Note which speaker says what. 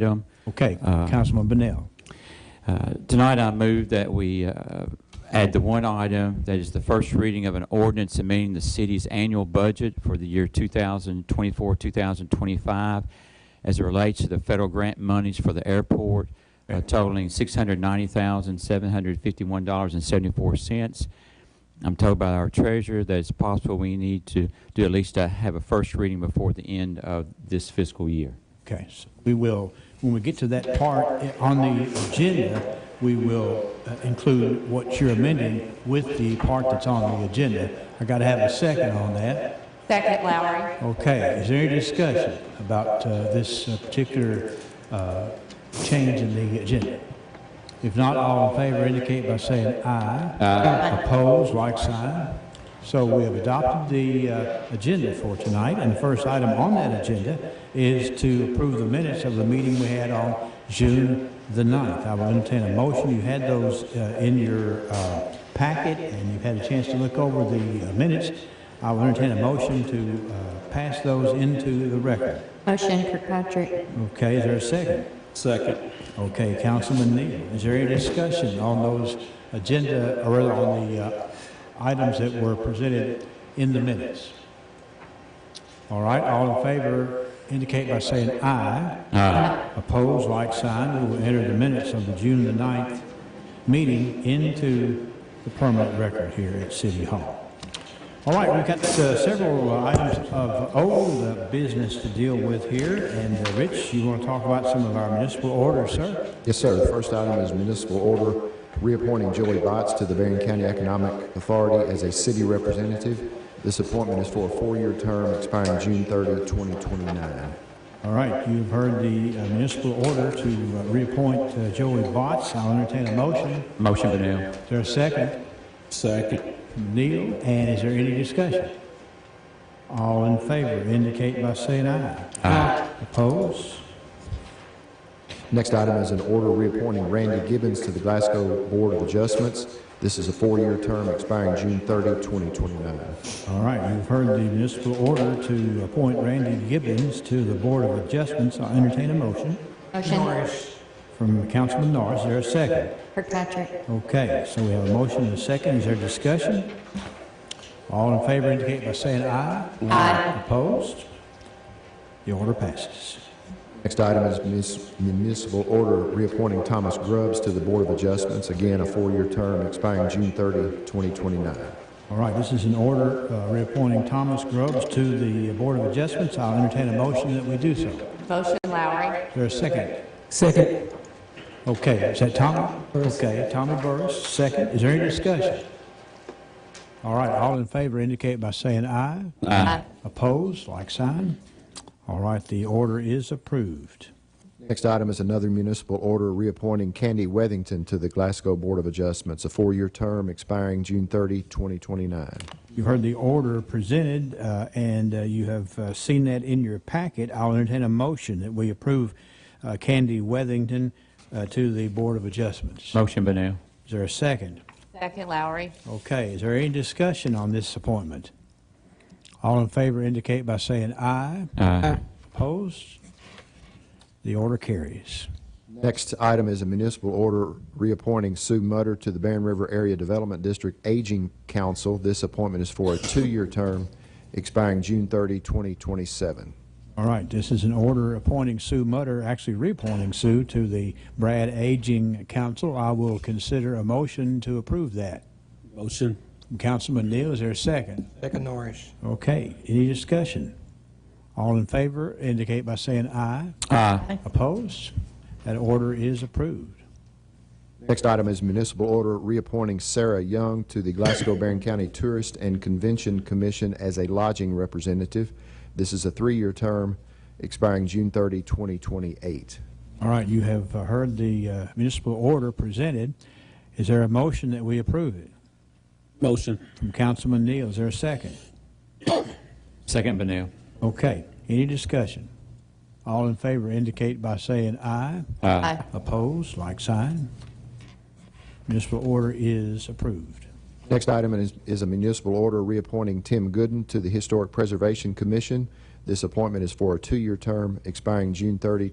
Speaker 1: Jim.
Speaker 2: Okay,
Speaker 1: Uh,
Speaker 2: Councilman Bennell.
Speaker 1: Uh, Tonight, I move that we uh, add the one item, that is the first reading of an ordinance amending the city's annual budget for the year 2024, 2025, as it relates to the federal grant monies for the airport uh, totaling $690,751.74. I'm told by our treasurer that it's possible we need to do at least uh, have a first reading before the end of this fiscal year.
Speaker 2: Okay, so we will, when we get to that part i- on the agenda, we will uh, include what you're amending with the part that's on the agenda. I got to have a second on that.
Speaker 3: Second, Lowry.
Speaker 2: Okay, is there any discussion about uh, this uh, particular uh, change in the agenda? If not, all in favor indicate by saying aye. Aye. Opposed, like sign. So we have adopted the uh, agenda for tonight, and the first item on that agenda is to approve the minutes of the meeting we had on June the 9th. I will entertain a motion. You had those uh, in your uh, packet, and you've had a chance to look over the uh, minutes. I will entertain a motion to uh, pass those into the record.
Speaker 3: Motion, Kirkpatrick.
Speaker 2: Okay, is there a second?
Speaker 4: Second.
Speaker 2: Okay, Councilman Neal, is there any discussion on those agenda, or rather on the uh, items that were presented in the minutes? All right, all in favor indicate by saying aye. Aye. Opposed, like sign, we will enter the minutes of the June the 9th meeting into the permanent record here at City Hall. All right, we've got uh, several uh, items of old uh, business to deal with here, and uh, Rich, you want to talk about some of our municipal orders, sir?
Speaker 5: Yes, sir. The first item is municipal order reappointing Julie Botts to the Marion County Economic Authority as a city representative. This appointment is for a four-year term expiring June 30, 2029.
Speaker 2: All right, you've heard the uh, municipal order to uh, reappoint uh, Joey Botts. I'll entertain a motion.
Speaker 1: Motion, Benel.
Speaker 2: Is there a second?
Speaker 4: Second.
Speaker 2: Neal, and is there any discussion? All in favor indicate by saying aye. Aye. Opposed?
Speaker 5: Next item is an order reappointing Randy Gibbons to the Glasgow Board of Adjustments. This is a four-year term expiring June 30, 2029.
Speaker 2: All right, you've heard the municipal order to appoint Randy Gibbons to the Board of Adjustments. I'll entertain a motion.
Speaker 3: Motion,
Speaker 2: From Councilman Norris, is there a second?
Speaker 3: Kirkpatrick.
Speaker 2: Okay, so we have a motion and a second. Is there discussion? All in favor indicate by saying aye.
Speaker 3: Aye.
Speaker 2: Opposed? The order passes.
Speaker 5: Next item is munis- municipal order reappointing Thomas Grubbs to the Board of Adjustments. Again, a four-year term expiring June 30, 2029.
Speaker 2: All right, this is an order uh, reappointing Thomas Grubbs to the Board of Adjustments. I'll entertain a motion that we do so. Is
Speaker 3: Motion, Lowry.
Speaker 2: there a second?
Speaker 6: Second.
Speaker 2: Okay, is that Tommy? Okay, Tommy Burris, second. Is there any discussion? All right, all in favor indicate by saying aye.
Speaker 3: Aye.
Speaker 2: Opposed, like sign. All right, the order is approved.
Speaker 5: Next item is another municipal order reappointing Candy Wethington to the Glasgow Board of Adjustments, a four-year term expiring June 30, 2029.
Speaker 2: You've heard the order presented, uh, and uh, you have uh, seen that in your packet. I'll entertain a motion that we approve uh, Candy Wethington uh, to the Board of Adjustments. Is
Speaker 1: Motion, Benel.
Speaker 2: there a second?
Speaker 3: Second, Lowry.
Speaker 2: Okay, is there any discussion on this appointment? All in favor indicate by saying aye.
Speaker 1: Aye.
Speaker 2: Opposed? The order carries.
Speaker 5: Next item is a municipal order reappointing Sue Mutter to the Barron River Area Development District Aging Council. This appointment is for a two-year term expiring June 30, 2027.
Speaker 2: All right, this is an order appointing Sue Mutter, actually reappointing Sue to the Brad Aging Council. I will consider a motion to approve that.
Speaker 4: Motion.
Speaker 2: Councilman Neal, is there a second?
Speaker 6: Second Norris.
Speaker 2: Okay, any discussion? All in favor indicate by saying aye.
Speaker 1: Aye.
Speaker 2: Opposed? That order is approved.
Speaker 5: Next item is municipal order reappointing Sarah Young to the Glasgow Barron County Tourist and Convention Commission as a lodging representative. This is a three-year term expiring June 30, 2028.
Speaker 2: All right, you have uh, heard the uh, municipal order presented. Is there a motion that we approve it?
Speaker 4: Motion.
Speaker 2: From Councilman Neal, is there a second?
Speaker 1: Second, Benel.
Speaker 2: Okay, any discussion? All in favor indicate by saying aye.
Speaker 3: Aye.
Speaker 2: Opposed, like sign. Municipal order is approved.
Speaker 5: Next item is, is a municipal order reappointing Tim Gooden to the Historic Preservation Commission. This appointment is for a two-year term expiring June 30,